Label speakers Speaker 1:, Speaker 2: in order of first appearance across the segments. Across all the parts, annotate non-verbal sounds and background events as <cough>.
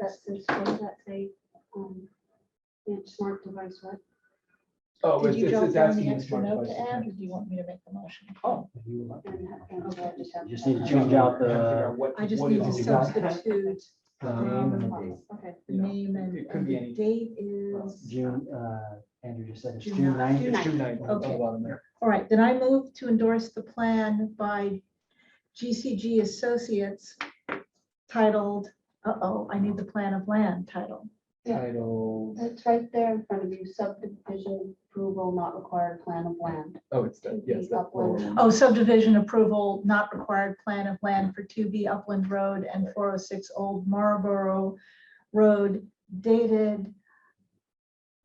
Speaker 1: that since when that they, um, yeah, smart device, what?
Speaker 2: Oh,
Speaker 3: Did
Speaker 2: it's,
Speaker 3: you
Speaker 2: it's
Speaker 3: drop
Speaker 2: it's
Speaker 3: down
Speaker 2: asking
Speaker 3: the
Speaker 2: you
Speaker 3: extra
Speaker 2: smart
Speaker 3: note
Speaker 2: devices.
Speaker 3: to add, or do you want me to make the motion?
Speaker 2: Oh. if you would like.
Speaker 1: And ha- and we'll just have-
Speaker 4: You just need to
Speaker 2: Figure
Speaker 4: change out
Speaker 2: figure out
Speaker 4: the.
Speaker 2: what-
Speaker 3: I just
Speaker 2: what
Speaker 3: need
Speaker 2: is
Speaker 3: to
Speaker 2: it about.
Speaker 3: substitute
Speaker 4: the name and the
Speaker 1: Okay.
Speaker 3: the
Speaker 2: You know,
Speaker 3: name and
Speaker 2: it could
Speaker 3: and
Speaker 2: be
Speaker 3: the
Speaker 2: any-
Speaker 3: date is.
Speaker 4: June, uh, Andrew just said it's
Speaker 3: June
Speaker 4: June
Speaker 3: ninth.
Speaker 4: ninth.
Speaker 1: June
Speaker 2: It's June ninth, on the
Speaker 3: Okay.
Speaker 2: bottom there.
Speaker 3: All right, then I move to endorse the plan by GCG Associates titled, uh-oh, I need the plan of land title.
Speaker 1: Yeah.
Speaker 2: Title,
Speaker 1: It's right there in front of you, subdivision approval not required, plan of land.
Speaker 2: oh, it's that, yes.
Speaker 1: Keep
Speaker 2: that
Speaker 1: up with-
Speaker 2: little- <laughs>
Speaker 3: Oh, subdivision approval not required plan of land for 2B Upland Road and 406 Old Marlborough Road dated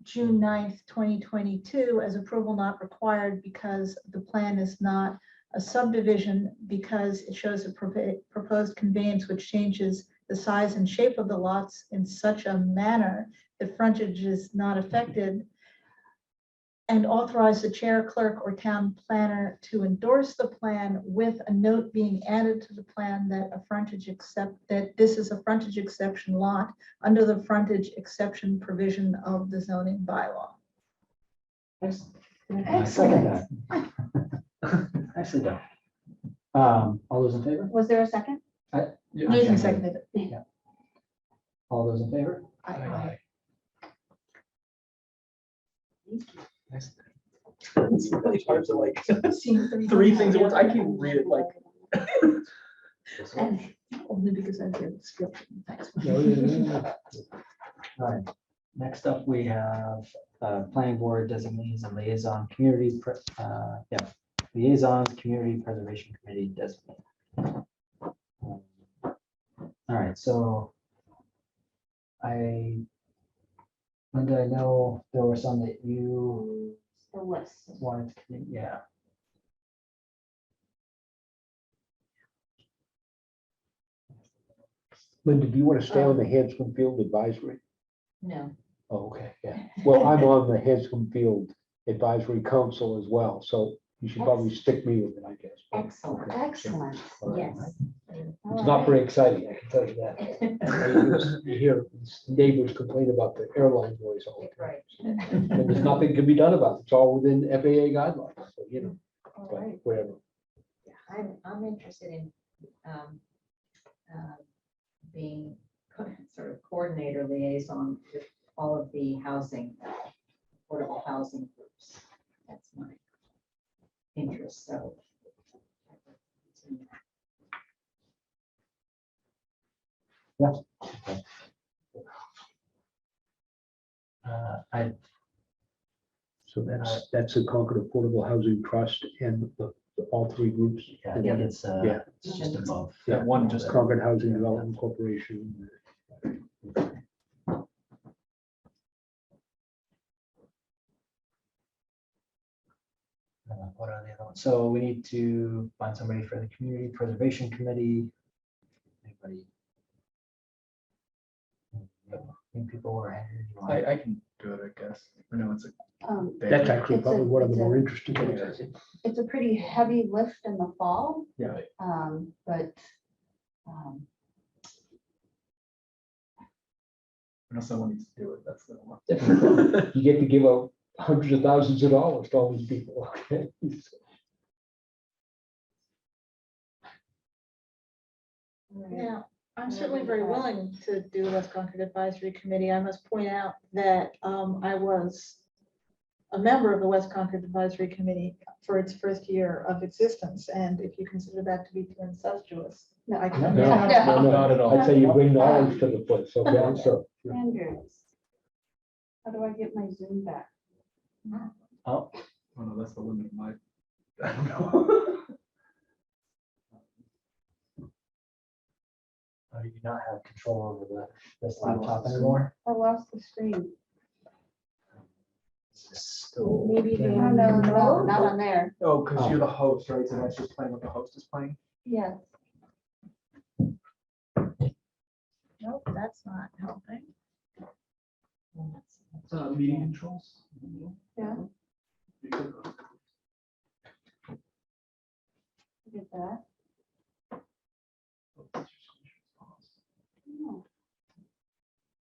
Speaker 3: June 9th, 2022, as approval not required because the plan is not a subdivision because it shows a propa- proposed conveyance which changes the size and shape of the lots in such a manner that frontage is not affected and authorize the chair clerk or town planner to endorse the plan with a note being added to the plan that a frontage except, that this is a frontage exception lot under the frontage exception provision of the zoning bylaw.
Speaker 4: I second that. Actually, done. Um, all those in favor?
Speaker 1: Was there a second?
Speaker 2: Yeah.
Speaker 3: Nathan seconded it.
Speaker 4: All those in favor?
Speaker 3: I- I-
Speaker 2: Aye. Nice.
Speaker 5: It's really hard to like,
Speaker 3: seeing three
Speaker 5: Three
Speaker 3: things.
Speaker 5: things at once. I can read it like.
Speaker 3: And Only because I hear the script. Thanks.
Speaker 4: No, no, no, no. All right. Next up, we have uh, planning board designees and liaison community, pre- uh, yeah, liaisons, community preservation committee designate. All right, so I, Linda, I know there were some that you
Speaker 1: The list.
Speaker 4: wanted to, commit- yeah.
Speaker 6: Linda, do you want to stay on the Hanscom Field Advisory?
Speaker 7: No,
Speaker 6: Oh, okay, yeah. Well, I'm on the Hanscom Field Advisory Council as well, so you should probably stick me with it, I guess.
Speaker 1: Excellent,
Speaker 6: Okay.
Speaker 1: excellent,
Speaker 6: All right.
Speaker 1: yes.
Speaker 6: It's not very exciting, I can tell you that. And You hear neighbors complain about the airline noise all the time.
Speaker 7: right.
Speaker 6: And there's nothing can be done about it. It's all within FAA guidelines, so you know, but
Speaker 7: Alright,
Speaker 6: whatever.
Speaker 7: I'm, I'm interested in um, uh, being co- sort of coordinator liaison with all of the housing, affordable housing groups. That's my interest, so.
Speaker 4: Uh, I,
Speaker 6: So that's, that's the Concord Affordable Housing Trust and the, the- all three groups.
Speaker 4: yeah, I think it's, uh,
Speaker 6: Yeah.
Speaker 4: it's just above.
Speaker 2: That one just.
Speaker 6: Concord Housing Development Corporation.
Speaker 4: Uh, What are the other ones? So we need to find somebody for the community preservation committee. Anybody? Any people who are. angry, you want-
Speaker 2: I, I can do it, I guess. I know it's a.
Speaker 1: Um,
Speaker 2: big-
Speaker 6: That's actually
Speaker 1: It's a-
Speaker 6: probably one of the
Speaker 1: it's a-
Speaker 6: more interesting areas.
Speaker 1: It's a pretty heavy lift in the fall.
Speaker 2: Yeah.
Speaker 1: Um, but, um,
Speaker 2: No, someone needs to do it, that's the one.
Speaker 6: You get to give out hundreds of thousands of dollars to all these people, okay?
Speaker 3: Now, I'm certainly very willing to do West Concord Advisory Committee. I must point out that um, I was a member of the West Concord Advisory Committee for its first year of existence, and if you consider that to be too incestuous, I
Speaker 6: No,
Speaker 3: can. <laughs>
Speaker 6: no, no.
Speaker 2: Not at all.
Speaker 6: I'd say you bring knowledge to the place, okay, so.
Speaker 1: Andrews. How do I get my Zoom back?
Speaker 4: Oh,
Speaker 2: <laughs> Oh, no, that's the limit of my. I don't know. <laughs>
Speaker 4: oh, you do not have control over the, this laptop anymore?
Speaker 1: I lost the screen.
Speaker 4: Is this still-
Speaker 3: Maybe they-
Speaker 1: No, no, no, not on there.
Speaker 2: Oh, because you're the host, right? So that's just playing what the host is playing?
Speaker 1: Yes.
Speaker 3: Nope, that's not helping.
Speaker 2: Uh, meeting controls?
Speaker 1: Hmm.